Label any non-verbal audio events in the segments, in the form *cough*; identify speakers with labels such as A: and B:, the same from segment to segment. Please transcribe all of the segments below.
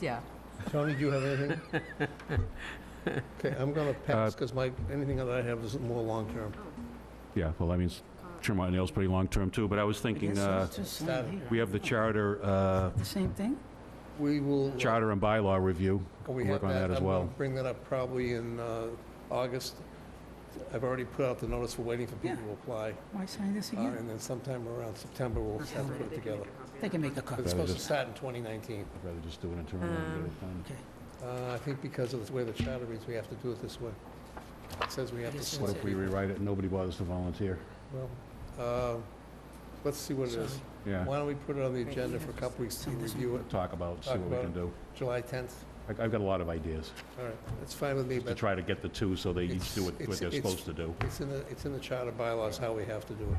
A: Yeah.
B: Tony, do you have
C: *laughs*
B: anything? Okay, I'm going to
C: Uh,
B: pass, because my, anything that I have is more long-term.
C: Yeah, well, I mean, s- trim my nails pretty long-term too, but I was thinking, uh, we have the charter, uh,
D: The same thing?
B: We will. uh,
C: charter and bylaw review.
B: we
C: work
B: have
C: on that as
B: I'm gonna
C: well.
B: Bring that up probably in uh, August. I've already put out the notice, we're waiting for people
D: Yeah.
B: to apply.
D: Why sign this
B: uh,
D: again?
B: And then sometime around September, we'll have to put it together.
D: They can make a copy.
B: It's supposed
C: Rather
B: to
C: just-
B: start in 2019.
C: I'd rather just do it in turn and get it done.
D: Okay.
B: Uh, I think because of the way the charter reads, we have to do it this way. It says we have
D: It
B: to.
D: is
B: send
C: What
B: it.
C: if we rewrite it and nobody bothers to voluner?
B: Well, uh, let's see what it is.
D: Sorry.
C: Yeah,
B: Why don't we put it on the
D: Right,
B: agenda
D: you
B: for a
D: have
B: couple weeks to
D: some this
B: review it,
C: talk about, see
B: Talk
C: what we
B: about
C: can
B: it.
C: do.
B: July 10th?
C: I- I've got a lot of ideas,
B: All right, that's fine with me,
C: just to
B: but
C: try to get the two so they each do
B: It's-
C: what
B: it's-
C: what they're
B: it's-
C: supposed to do.
B: it's in the, it's in the charter bylaws how we have to do it.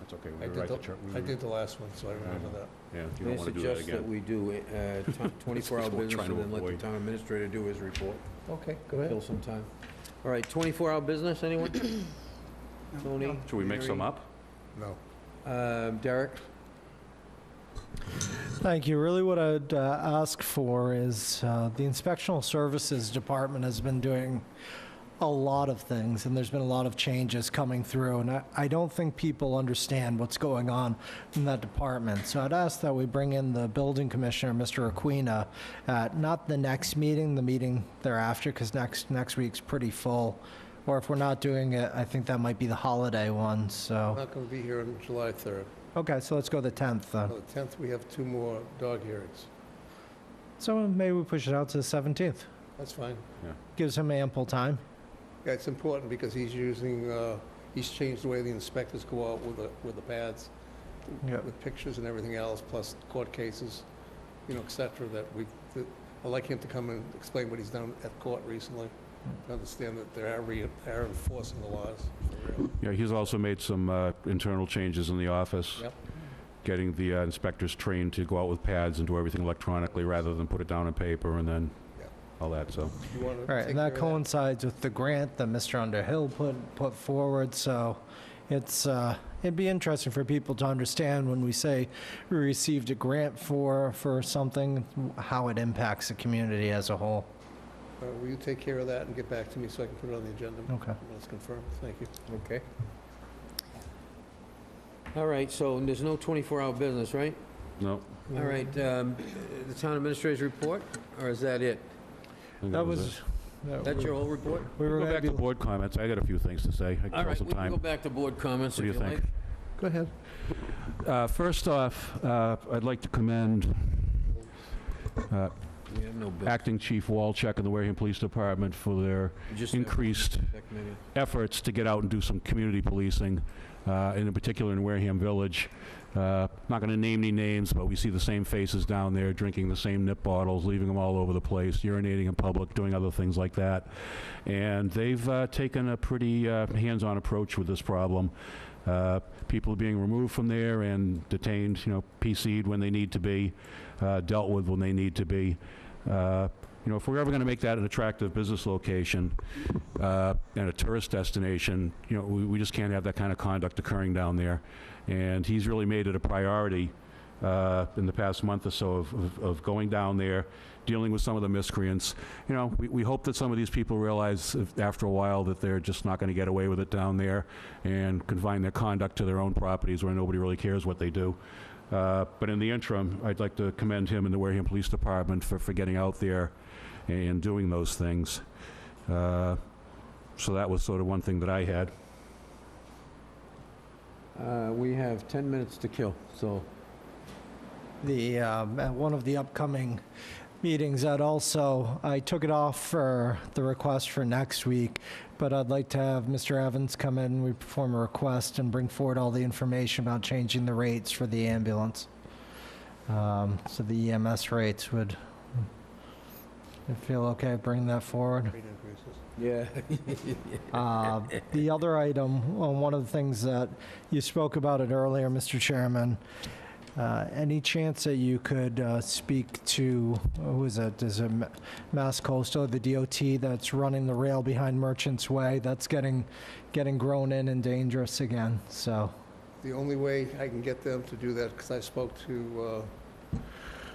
C: That's okay,
B: I
C: we
B: did
C: rewrite the
B: the-
C: chart.
B: I did the last one, so I remember that.
C: Yeah, you
E: May I
C: don't want to do that
E: suggest that
C: again.
E: we
C: *laughs*
E: do uh, t- 24-hour
C: That's what we're
E: business
C: trying to
E: and then let the
C: avoid.
E: town administrator do his report?
B: Okay, go
E: Kill
B: ahead.
E: some time. All right, 24-hour business,
C: *clears throat*
E: anyone? Tony?
C: Should we make some
E: Mary?
C: up?
B: No.
E: Um, Derek?
F: Thank you. Really, what I'd uh, ask for is uh, the Inspectional Services Department has been doing a lot of things, and there's been a lot of changes coming through, and I, I don't think people understand what's going on in that department. So I'd ask that we bring in the Building Commissioner, Mr. Aquina, at not the next meeting, the meeting thereafter, because next, next week's pretty full. Or if we're not doing it, I think that might be the holiday one,
C: Oh.
B: I'm
F: so.
B: not going to be here on July 3rd.
F: Okay, so let's go the 10th
B: On
F: then.
B: the 10th, we have two more dog hearings.
F: So maybe we push it out to the 17th.
B: That's fine.
F: Gives him ample time.
B: Yeah, it's important because he's using, uh, he's changed the way the inspectors go out with the, with the pads, with pictures and everything else, plus court cases, you know, et cetera, that we, that- I'd like him to come and explain what he's done at court recently,
F: Hmm.
B: to understand that they are re, are enforcing the laws. for real.
C: Yeah, he's also made some uh, internal changes in the office.
B: Yep.
C: Getting the uh, inspectors trained to go out with pads and do everything electronically rather than put it down on paper and then
B: Yep.
C: all that, so.
B: You want
F: All
B: to
F: right,
B: take
F: and
B: care of
F: that
B: that?
F: coincides with the grant that Mr. Underhill put, put forward, so it's, uh, it'd be interesting for people to understand when we say we received a grant for, for something, how it impacts the community as a whole.
B: All right, Uh, Will you take care of that and get back to me so I can put it on the agenda?
F: Okay.
B: When it's confirmed, thank you.
E: Okay. All right, so there's no 24-hour business, right?
C: No.
E: All right, um, the town administrator's report, or is that it?
C: I think
F: That
C: it.
F: was. that
E: That's
F: we-
E: your whole report?
F: We were
C: Go
F: gonna
C: back to
F: be,
C: board comments. I got a few things to say. I
E: All
C: can kill
E: right,
C: some
E: we can go
C: time.
E: back to board comments
C: What
E: if
C: do
E: you
C: you
E: like.
C: think?
B: Go ahead.
C: Uh, First off, uh, I'd like to commend uh,
E: We have no bill.
C: Acting Chief Walczek and the Wareham Police Department for their
E: Just have-
C: increased efforts to get out and do some community policing, uh, and in particular in Wareham Village. Uh, Not going to name any names, but we see the same faces down there, drinking the same nip bottles, leaving them all over the place, urinating in public, doing other things like that. And they've uh, taken a pretty uh, hands-on approach with this problem. Uh, People are being removed from there and detained, you know, PC'd when they need to be, uh, dealt with when they need to be. Uh, You know, if we're ever going to make that an attractive business location, uh, and a tourist destination, you know, we we just can't have that kind of conduct occurring down there. And he's really made it a priority uh, in the past month or so of- of- of going down there, dealing with some of the miscreants. You know, we- we hope that some of these people realize if- after a while that they're just not going to get away with it down there and confine their conduct to their own properties where nobody really cares what they do. Uh, But in the interim, I'd like to commend him and the Wareham Police Department for for getting out there and doing those things. Uh, so that was sort of one thing that I had.
E: Uh, We have 10 minutes to kill, so
F: the, um, at one of the upcoming meetings, that also, I took it off for the request for next week, but I'd like to have Mr. Evans come in, we perform a request and bring forward all the information about changing the rates for the ambulance. Um, So the EMS rates would, I feel okay bringing that forward.
B: Rate increases.
E: Yeah. *laughs*
F: Uh, The other item, well, one of the things that you spoke about it earlier, Mr. Chairman, uh, any chance that you could uh, speak to, who is it, is it Ma- Mass Coastal, the DOT that's running the rail behind Merchants Way? That's getting, getting grown in and dangerous again, so.
B: The only way I can get them to uh, do that, because I spoke to